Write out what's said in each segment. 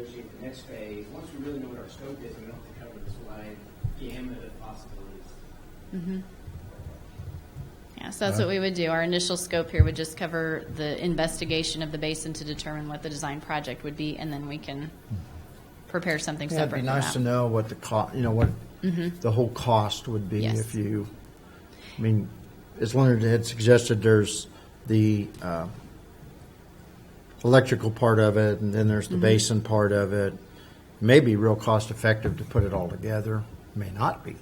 negotiate the next phase, once we really know what our scope is, we don't have to cover this wide gamut of possibilities. Yeah, so that's what we would do. Our initial scope here would just cover the investigation of the basin to determine what the design project would be, and then we can prepare something Yeah, it'd separate be from nice to that. know what the cost, you know, what the whole cost would be Yes. if you, I mean, as Leonard had suggested, there's the uh, electrical part of it, and then there's the basin part of it. May be real cost effective to put it all together, may not be.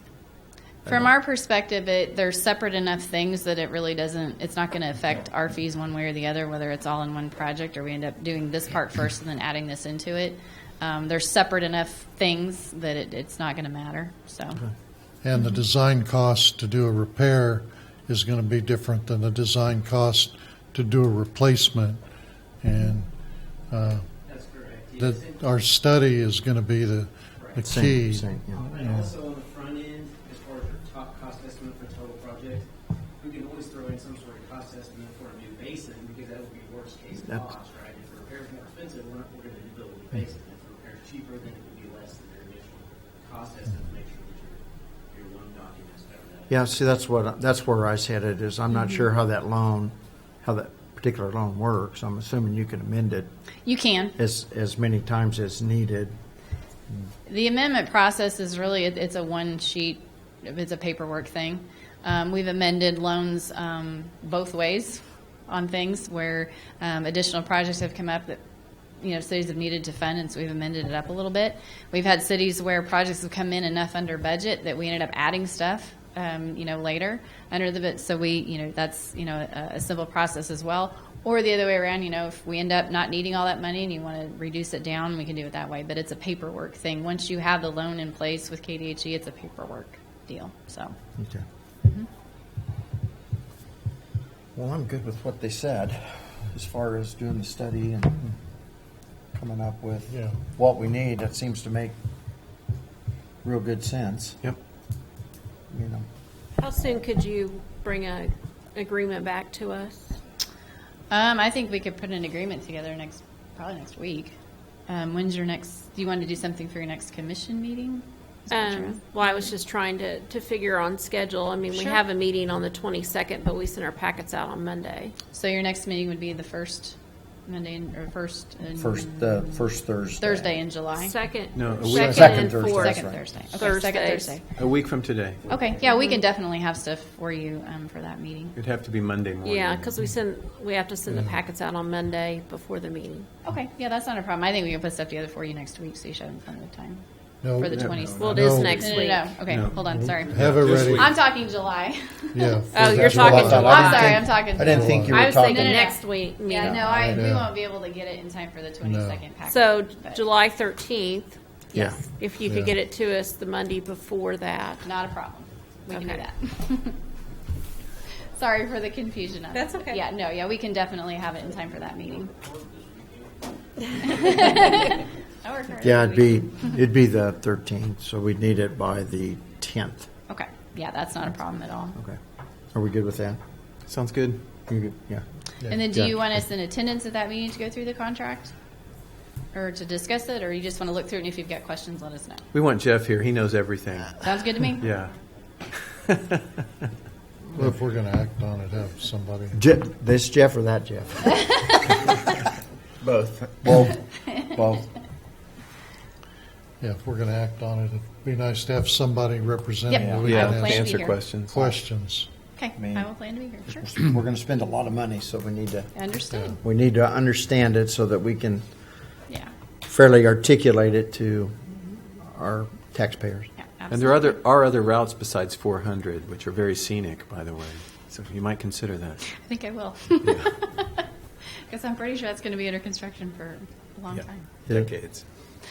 From our perspective, it, they're separate enough things that it really doesn't, it's not going to affect our fees one way or the other, whether it's all in one project or we end up doing this part first and then adding this into it. Um, they're separate enough things that it, it's not going to matter, so. And Mm-hmm. the design cost to do a repair is going to be different than the design cost to do a replacement. And That's correct. Mm-hmm. that Yes, and- our study is going to be the, the Same- key. same, yeah. And also on the front end, as far as our top cost estimate for total project, we can always throw in some sort of cost estimate for a new basin, because that would be worst case That- cost, right? If the repair's more expensive, we're not, we're gonna build a new basin. If the repair's cheaper, then it would be less than their initial cost estimate, make sure that your, your loan documents cover that. Yeah, see, that's what, that's where I said it is. I'm not sure how that loan, how that particular loan works. I'm assuming you can amend it You can. as, as many times as needed. The amendment process is really, it- it's a one sheet, it's a paperwork thing. Um, we've amended loans um, both ways on things where um, additional projects have come up that, you know, cities have needed to fund, and so we've amended it up a little bit. We've had cities where projects have come in enough under budget that we ended up adding stuff, um, you know, later under the, bit. so we, you know, that's, you know, a, a simple process as well. Or the other way around, you know, if we end up not needing all that money and you want to reduce it down, we can do it that way. But it's a paperwork thing. Once you have the loan in place with KDHE, E, it's a paperwork deal. So, Okay. Well, I'm good with what they said, as far as doing the study and coming up with Yeah. what we need. That seems to make real good sense. Yep. You know, How soon could you bring a agreement back to us? um, I think we could put an agreement together next, probably next week. Um, when's your next? Do you want to do something for your next commission meeting? Is that what you're Um, asking? well, I was just trying to, to figure on schedule. I mean, we Sure. have a meeting on the twenty-second, but we send our packets out on Monday. so your next meeting would be the first Monday in, or first in, first, uh, first Thursday. Thursday in July. Second, No, a week. second Second and Thursday. fourth. Second right. Thursday. Okay, second Thursdays. Thursday. A week from today. Okay, yeah, we can definitely have stuff for you um, for that meeting. It'd have to be Monday morning. Yeah, because we send, we have to send the Mm-hmm. packets out on Monday before the meeting. Okay, yeah, that's not a problem. I think we can put stuff together for you next week, so you should have plenty of time. No, For the no, 20th. Well, it is No. next No, no, week. no, okay, hold on, sorry. Have it This ready. week. I'm talking July. Yeah. Oh, for you're the- talking July. July. I'm sorry, I'm talking I didn't July. think you were I was talking. thinking No, no, no. next week Yeah, meeting. no, I, we Yeah. won't be able to get it in time for the 22nd package. So but July thirteenth, Yeah. if you Yeah. could get it to us the Monday before that. Not a problem. We can do Okay. that. Sorry for the confusion on That's that, but okay. Yeah, no, yeah, we can definitely have it in time for that meeting. I work hard. Yeah, it'd be, it'd be the thirteenth, so we'd need it by the tenth. Okay, yeah, that's not a problem at all. Okay. Are we good with that? Sounds good. You're good? Yeah. And then do Yeah. you want us in attendance at that meeting to go through the contract? Or to discuss it, or you just want to look through it and if you've got questions, let us know? We want Jeff here. He knows everything. Sounds good to me? Yeah. If we're going to act on it, have somebody. Je- this Jeff or that Jeff? Both. Both. Both. Yeah, if we're going to act on it, it'd be nice to have somebody representing. Yep. that we Yeah, can I'll plan to to ask be answer here. questions. Questions. Okay, Man. I will plan to be here, sure. We're going to spend a lot of money, so we need to, Understood, we need to understand it so that we can yeah, fairly articulate it to our taxpayers. yeah, And there are absolutely. other, are other routes besides 400, which are very scenic, by the way. So you might consider that. I think I will. Because I'm pretty sure that's going to be under construction for a long Yeah. time. Decades.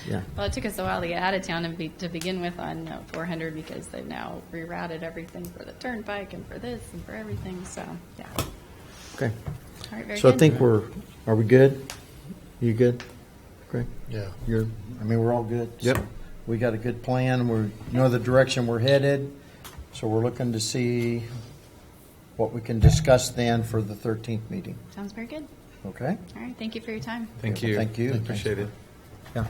Yeah. Well, it took us a while to get out of town and be, to begin with on uh, 400 because they've now rerouted everything for the turnpike and for this and for everything, so, yeah. All Okay. right, very So I good. think we're, are we good? You good? Great. Yeah. You're, I mean, we're all good. Yep. So We got a good plan. We're, know the direction we're headed. So we're looking to see what we can discuss then for the 13th meeting. Sounds very good. Okay? All right, thank you for your time. Thank you. Thank you. Appreciate it. Yeah.